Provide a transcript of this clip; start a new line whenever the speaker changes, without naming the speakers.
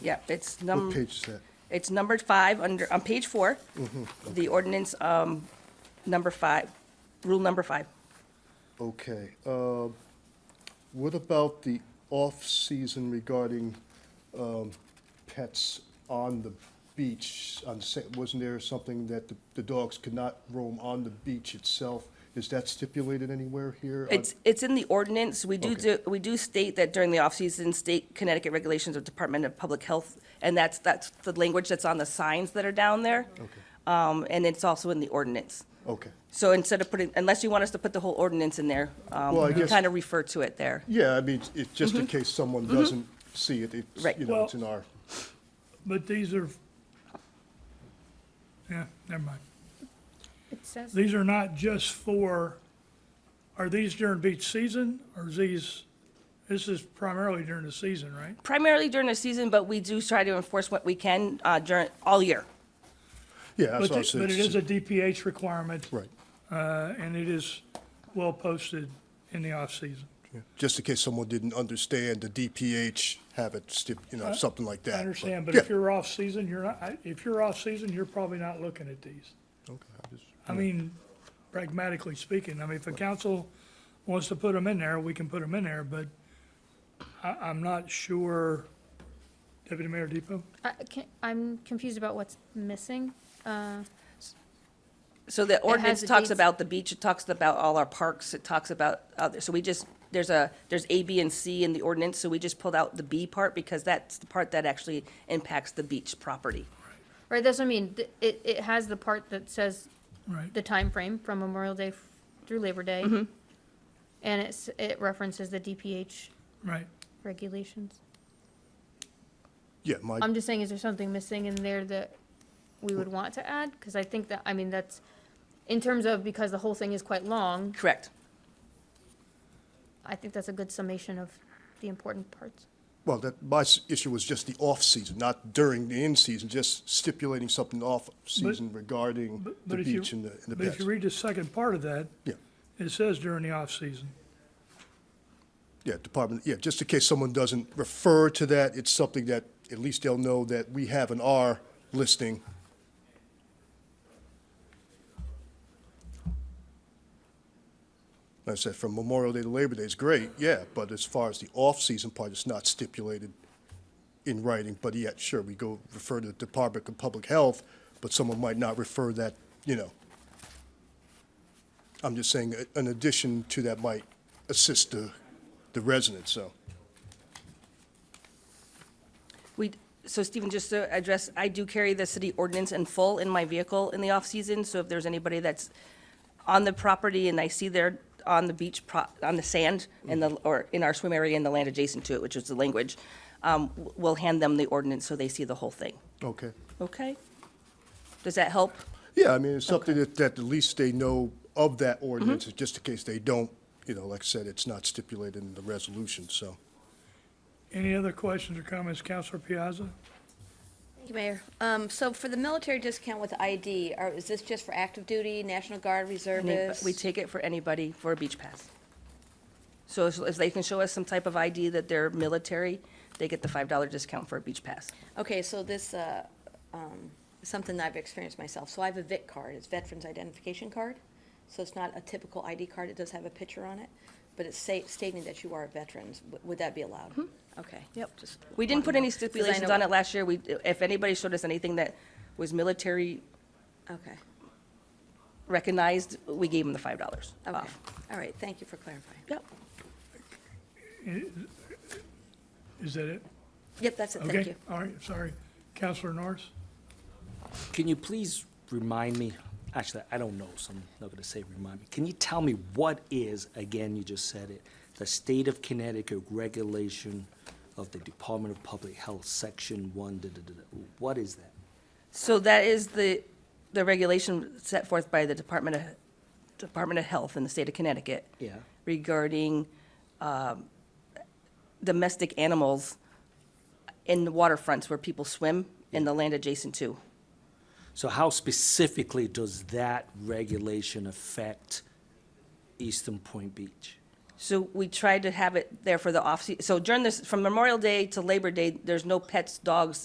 Yep, it's
What
num,
page is that?
it's numbered five under, on page four.
Mm-hmm.
The ordinance, um, number five, rule number five.
Okay. um, What about the off-season regarding um, pets on the beach? On Sa- Wasn't there something that the- the dogs could not roam on the beach itself? Is that stipulated anywhere here? on-
It's, it's in the ordinance. We do,
Okay.
do we do state that during the off-season, state Connecticut regulations of Department of Public Health, and that's, that's the language that's on the signs that are down there. Um, and it's also in the ordinance.
Okay.
So instead of putting, unless you want us to put the whole ordinance in there, um,
Well, I
we
guess-
kind of refer to it there.
Yeah, I mean, it's just in case someone doesn't see it,
Mm-hmm. Right.
it's, you know, it's in our,
But these are, yeah, never mind.
It says,
These are not just for, are these during beach season or is these, this is primarily during the season, right?
Primarily during the season, but we do try to enforce what we can, uh, during, all year.
yeah, that's
But
what I
the-
said.
but it is a DPH requirement.
Right.
Uh, and it is well posted in the off-season.
Just in case someone didn't understand, the DPH have it, stip- you know, something like that.
I understand, but
yeah.
if you're off-season, you're not, I- if you're off-season, you're probably not looking at these.
Okay, I just-
I mean, pragmatically speaking, I mean, if the council wants to put them in there, we can put them in there, but I, I'm not sure, Deputy Mayor Depot?
I can, I'm confused about what's missing. Uh,
So the ordinance
the
talks
dates.
about the beach, it talks about all our parks, it talks about other, so we just, there's a, there's A, B, and C in the ordinance, so we just pulled out the B part because that's the part that actually impacts the beach property.
Right, that's what I mean, Th- it, it has the part that says
Right.
the time frame from Memorial Day f- through Labor Day. And it's, it references the DPH
Right.
regulations.
Yeah, my,
Um,
I'm just saying, is there something missing in there that we would want to add? Because I think that, I mean, that's, in terms of, because the whole thing is quite long,
Correct.
I think that's a good summation of the important parts.
well, that, my s- issue was just the off-season, not during the in-season, just stipulating something off-season regarding
But-
the
but if you-
beach and the, and the
But if
pets.
you read the second part of that,
Yeah,
it says during the off-season.
yeah, department, yeah, just in case someone doesn't refer to that, it's something that at least they'll know that we have an R listing. Like I said, from Memorial Day to Labor Day is great, yeah, but as far as the off-season part, it's not stipulated in writing, but yet, sure, we go refer to the Department of Public Health, but someone might not refer that, you know. I'm just saying, a- an addition to that might assist the, the residents, so.
We, so Stephen, just to address, I do carry the city ordinance in full in my vehicle in the off-season, so if there's anybody that's on the property and I see they're on the beach, pro- on the sand, in the, or in our swim area in the land adjacent to it, which is the language, um, w- we'll hand them the ordinance so they see the whole thing.
Okay.
Okay? Does that help?
Yeah, I mean, it's something that, that at least they know of that ordinance, just in case they don't, you know, like I said, it's not stipulated in the resolution, so.
Any other questions or comments, Counselor Piazza?
Thank you, Mayor. Um, so for the military discount with ID, are, is this just for active duty, National Guard,
Any-
reservists?
We take it for anybody for a beach pass. So if if they can show us some type of ID that they're military, they get the $5 discount for a beach pass.
Okay, so this, uh, um, is something that I've experienced myself. So I have a VIC card, it's Veterans Identification Card. So it's not a typical ID card, it does have a picture on it, but it's sa- stating that you are a veteran. Would- Would that be allowed?
Hmm.
Okay. Yep.
We didn't put any stipulations on it last year. We, if anybody showed us anything that was military
Okay,
recognized, we gave them the five dollars
okay.
off.
All right, thank you for clarifying.
Yep.
Is that it?
Yep, that's it, thank
Okay,
you.
all right, sorry. Counselor Norris?
Can you please remind me, actually, I don't know, so I'm not gonna say remind me. Can you tell me what is, again, you just said it, the state of Connecticut regulation of the Department of Public Health, section one, da, da, da, da. What is that?
So that is the, the regulation set forth by the Department of, Department of Health in the state of Connecticut.
Yeah.
Regarding, um, domestic animals in the waterfronts where people swim and the land adjacent to.
So how specifically does that regulation affect Eastern Point Beach?
So we tried to have it there for the off, so during this, from Memorial Day to Labor Day, there's no pets, dogs,